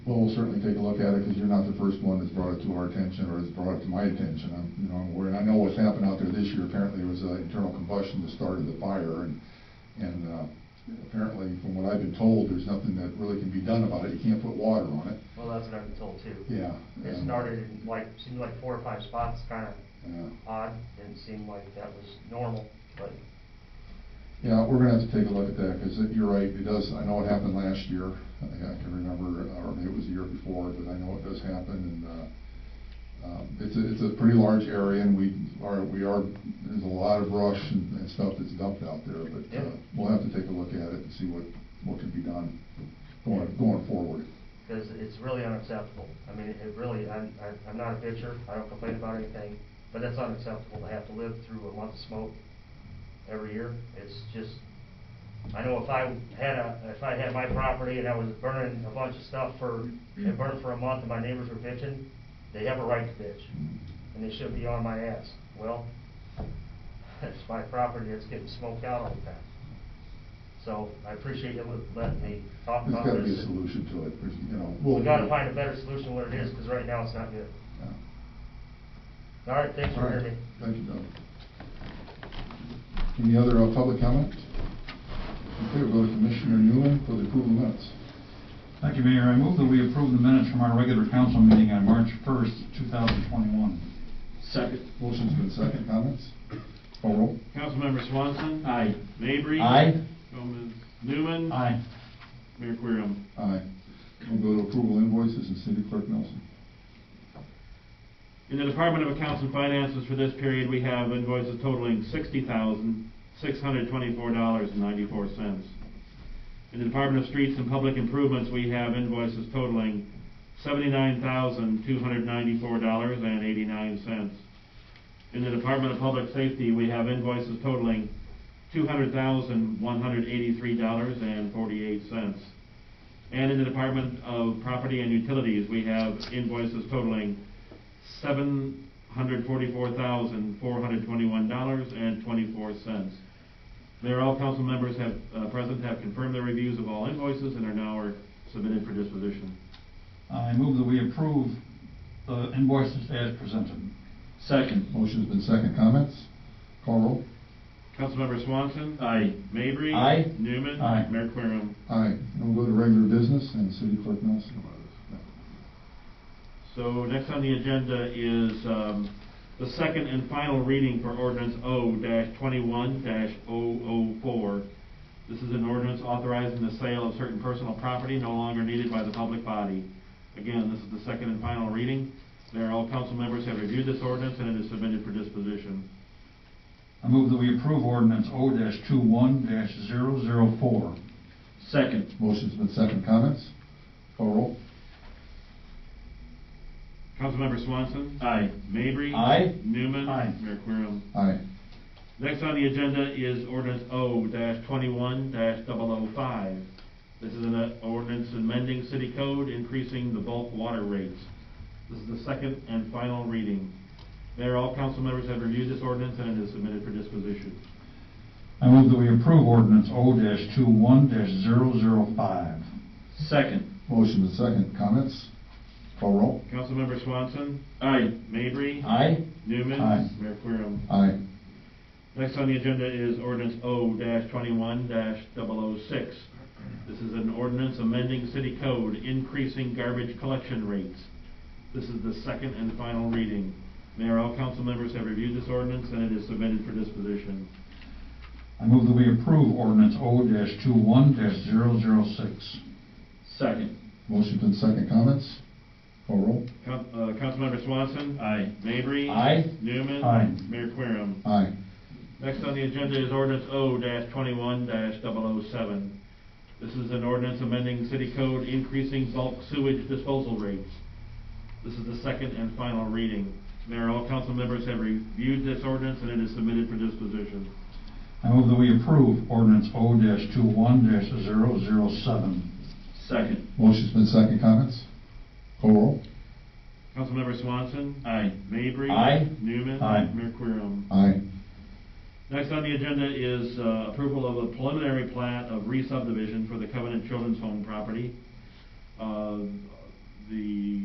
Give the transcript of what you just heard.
Well, we'll certainly take a look at it, because you're not the first one that's brought it to our attention, or has brought it to my attention. I'm, you know, I'm aware, I know what's happened out there this year, apparently it was uh, internal combustion that started the fire, and, and uh, apparently, from what I've been told, there's nothing that really can be done about it, you can't put water on it. Well, that's what I've been told too. Yeah. It um, started in like, seemed like four or five spots, kinda Yeah. odd, didn't seem like that was normal, but Yeah, we're gonna have to take a look at that, because you're right, it does, I know it happened last year, I think I can remember, or maybe it was the year before, but I know it does happen, and, uh, um, it's a, it's a pretty large area, and we are, we are, there's a lot of brush and, and stuff that's dumped out there, but, Yeah. uh, we'll have to take a look at it and see what, what can be done going, going forward. because it's really unacceptable. I mean, it really, I'm, I'm- I'm not a bitcher, I don't complain about anything, but it's unacceptable to have to live through a month of smoke every year. It's just, I know if I had a, if I had my property and I was burning a bunch of stuff for, it burned for a month and my neighbors were bitching, they have a right to bitch, and they should be on my ass. Well, it's my property that's getting smoked out all the time. So I appreciate you letting me talk There's about gotta this. be a solution to it, there's, you know. We gotta find a better solution what it is, because right now it's not good. Yeah. All right, thanks for All right. hearing me. Thank you, Doug. Any other uh, public comment? Okay, we'll go to Commissioner Newman for the approval of minutes. Thank you, Mayor. I move that we approve the minutes from our regular council meeting on March 1st, 2021. Second. Motion's been second, comments? Call roll. Councilmember Swanson. Aye. Mavry. Aye. Gomez Newman. Aye. Mayor Querem. Aye. We'll go to approval invoices and City Clerk Nelson. In the Department of Accounts and Finances for this period, we have invoices totaling sixty thousand, six hundred twenty-four dollars and ninety-four cents. In the Department of Streets and Public Improvements, we have invoices totaling seventy-nine thousand, two hundred ninety-four dollars and eighty-nine cents. In the Department of Public Safety, we have invoices totaling two hundred thousand, one hundred eighty-three dollars and forty-eight cents. And in the Department of Property and Utilities, we have invoices totaling seven hundred forty-four thousand, four hundred twenty-one dollars and twenty-four cents. Mayor, all council members have, uh, present have confirmed their reviews of all invoices and are now are submitted for disposition. I move that we approve the invoices as presented. Second. Motion's been second, comments? Call roll. Councilmember Swanson. Aye. Mavory. Aye. Newman. Aye. Mayor Querem. Aye. And we'll go to regular business and City Clerk Nelson. So next on the agenda is, um, the second and final reading for ordinance O twenty-one 4 This is an ordinance authorizing the sale of certain personal property no longer needed by the public body. Again, this is the second and final reading. There, all council members have reviewed this ordinance and it is submitted for disposition. I move that we approve ordinance O-21-004. Second. Motion's been second, comments? Call roll. Councilmember Swanson. Aye. Mavry. Aye. Newman. Aye. Mayor Querem. Aye. Next on the agenda is ordinance O twenty-one 5 This is an uh, ordinance amending city code, increasing the bulk water rates. This is the second and final reading. Mayor, all council members have reviewed this ordinance and it is submitted for disposition. I move that we approve ordinance O-21-005. Second. Motion been second, comments? Call roll. Councilmember Swanson, Aye. Mavry, Aye. Newman. Aye. Mayor Querem. Aye. Next on the agenda is ordinance O twenty-one 6 oh This is an ordinance amending city code, increasing garbage collection rates. This is the second and final reading. Mayor, all council members have reviewed this ordinance and it is submitted for disposition. I move that we approve ordinance O-21-006. Second. Motion been second, comments? Call roll. Coun- uh, Councilmember Swanson. Aye. Mavry. Aye. Newman. Aye. Mayor Querem. Aye. Next on the agenda is ordinance O-21-007. This is an ordinance amending city code increasing bulk sewage disposal rates. This is the second and final reading. Mayor, all council members have reviewed this ordinance and it is submitted for disposition. I move that we approve ordinance O-21-007. Second. Motion's been second, comments? Call roll. Councilmember Swanson. Aye. Mavry. Aye. Newman. Aye. Mayor Querem. Aye. Next on the agenda is uh, approval of a preliminary plat of re-subdivision for the Covenant Children's Home property. Uh,